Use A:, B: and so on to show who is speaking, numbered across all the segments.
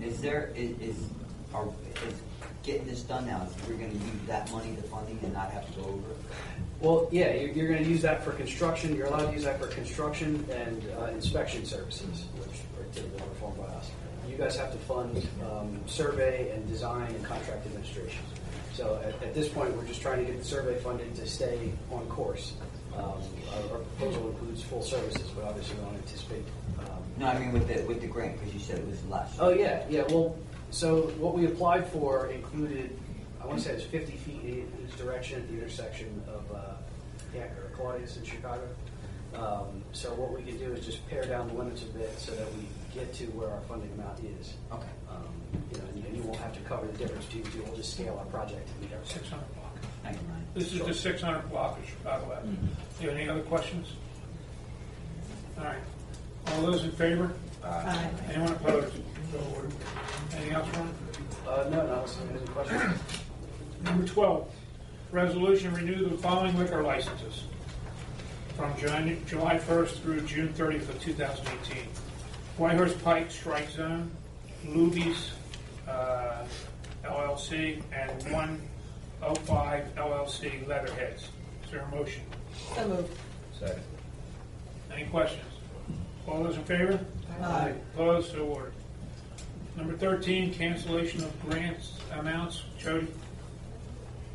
A: Is there, is, is, are, is getting this done now, is we're gonna use that money, the funding, and not have to go over?
B: Well, yeah, you're, you're gonna use that for construction, you're allowed to use that for construction and uh, inspection services, which are typically performed by us. You guys have to fund, um, survey and design and contract administration. So at, at this point, we're just trying to get the survey funded to stay on course. Um, our, our proposal includes full services, but obviously we don't anticipate, um,
A: No, I mean with the, with the grant, because you said it was less.
B: Oh, yeah, yeah, well, so what we applied for included, I want to say it was fifty feet in each direction at the intersection of, uh, yeah, or Claudius in Chicago. Um, so what we can do is just pare down the limits a bit so that we get to where our funding amount is.
A: Okay.
B: Um, You know, and you- and you won't have to cover the difference between the two, we'll just scale our project to meet our.
C: Six hundred block.
A: Thank you, Ryan.
C: This is the six hundred block of Chicago Avenue. Do you have any other questions? All right. All those in favor?
D: Aye.
C: Anyone opposed? So ordered. Anything else, Ron?
B: Uh, no, no, so any questions?
C: Number twelve, resolution renew the following liquor licenses from Jan- July first through June thirtieth of two thousand eighteen. Whitehorse Pike Strike Zone, Lubies uh, LLC, and one oh five LLC Leatherheads. Is there a motion?
D: So moved.
E: Second.
C: Any questions? All those in favor?
D: Aye.
C: Opposed, so ordered. Number 13, cancellation of grants amounts. Jody,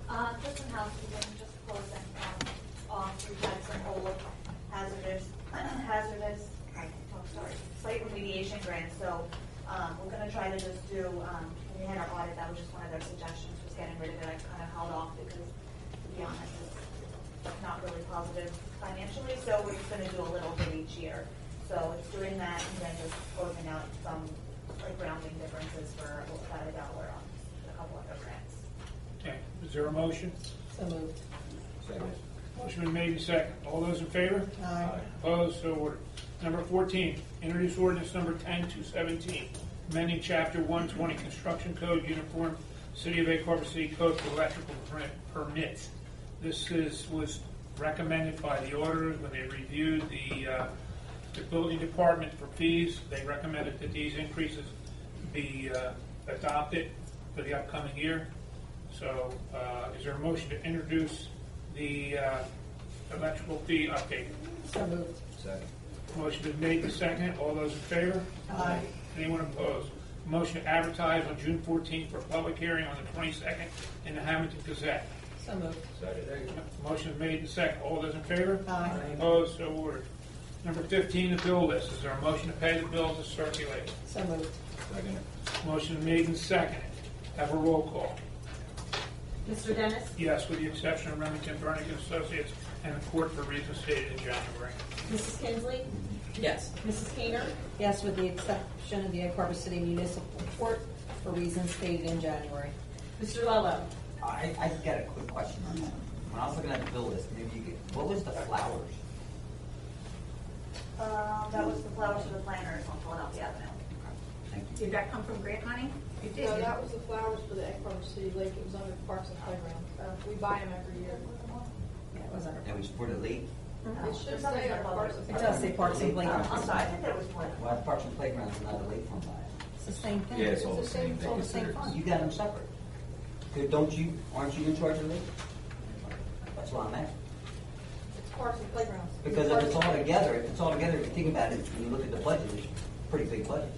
F: Uh, just some housekeeping, just closing, um, off, we had some old hazardous, hazardous, I can talk, sorry, site remediation grants, so, um, we're gonna try to just do, um, when we had our audit, that was just one of their suggestions, was getting rid of it, I kind of held off because, to be honest, it's not really positive financially, so we're just gonna do a little bit each year. So it's doing that and then just closing out some, like, rounding differences for about a dollar on a couple of the grants.
C: okay, is there a motion?
D: So moved.
E: Second.
C: Motion been made and second. All those in favor?
D: Aye.
C: Opposed, so ordered. Number 14, introduce ordinance number 10 to 17, amending chapter 120 construction code uniform, City of Acorn City Code for electrical per- permits. This is, was recommended by the auditors when they reviewed the, uh, the building department for fees. They recommended that these increases be uh, adopted for the upcoming year. So uh, is there a motion to introduce the uh, electrical fee update?
D: So moved.
E: Second.
C: Motion is made and seconded. All those in favor?
D: Aye.
C: Anyone opposed? Motion to advertise on June 14th for public hearing on the 22nd in the Hamilton Gazette.
D: So moved.
E: Second.
C: Motion is made and seconded. All those in favor?
D: Aye.
C: Opposed? So ordered. Number 15, the bill list. Is there a motion to pay the bills as circulated?
D: So moved.
E: Second.
C: Motion is made and seconded. Have a roll call.
D: Mr. Dennis?
C: Yes, with the exception of Remington Burning Associates and the court for reasons stated in January.
G: Mrs. Kinsley?
D: Yes.
G: Mrs. Keener?
D: Yes, with the exception of the Egg Harbor City Municipal Court for reasons stated in January.
G: Mr. Lello?
A: I, I got a quick question on that. When I was looking at the bill list, maybe you could, what was the flowers?
F: Um, that was the flowers for the planters on Philadelphia Avenue.
A: Thank you.
G: Did that come from grant money? It
H: No, that was the flowers for the Egg Harbor City Lake, it was under Parks and Playground, we buy them every year.
D: Yeah, it was under.
A: That was for the league?
F: Oh.
H: It should say under Parks and
D: It does
H: Playground.
D: say Parks and Playground.
F: Um, I'm sorry, I think there was one.
A: Well, Parks and Playground's another league fund by
D: It's the same thing.
E: Yeah, it's all the same. They
D: It's all the same
E: consider it.
D: fund.
A: it. You got them separate. Good, Don't you, aren't you in charge of the league? That's why I'm asking.
H: It's Parks and Playground.
A: Because if it's all together, if it's all together, if you think about it, when you look at the budget, it's a pretty big budget.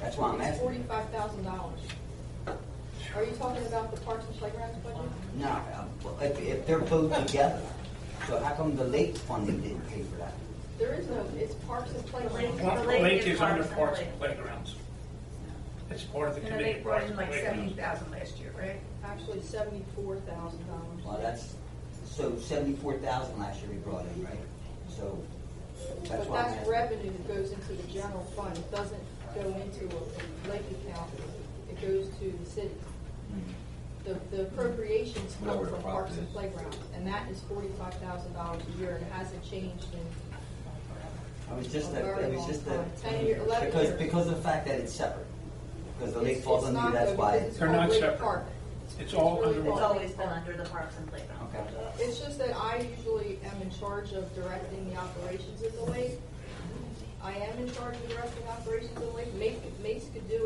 A: That's why I'm
H: It's
A: asking.
H: forty-five thousand dollars. Are you talking about the Parks and Playgrounds budget?
A: No, uh, well, if, if they're both together, so how come the late funding didn't pay for that?
H: There is no, it's Parks and Playground.
F: The lake
C: Lake
F: is
C: is under
F: Parks and
C: Parks and
F: Lake.
C: Playgrounds. It's part of the
G: And
C: committee.
G: they
C: of
G: brought
C: Parks
G: in
C: and
G: like
C: Playgrounds.
G: seventy thousand last year, right?
H: actually seventy-four thousand
A: Well,
H: dollars.
A: that's, so seventy-four thousand last year we brought in, right? So, that's
H: But
A: why I'm
H: that's
A: asking.
H: revenue that goes into the general fund, it doesn't go into a lake account, it goes to the city. The, the appropriations come
E: Whatever the
H: from
E: profit
H: Parks and
E: is.
H: Playgrounds, and that is forty-five thousand dollars a year, and it hasn't changed in,
A: I was just,
H: a
A: that-
H: very
A: it was
H: long
A: just
H: time. Ten year-
A: that,
H: eleven
A: because,
H: years.
A: because of the fact that it's separate. Because the
H: It's-
A: lake falls
H: it's
A: under,
H: not
A: you, that's
H: though,
A: why.
H: because it's-
C: They're not
H: Lake
C: separate.
H: Park.
C: It's all
H: It's
C: under
H: really
F: It's
C: one.
F: always been under the Parks and Playground.
A: Okay.
H: it's just that I usually am in charge of directing the operations of the lake. I am in charge of directing operations of the lake, Mace, Mace could do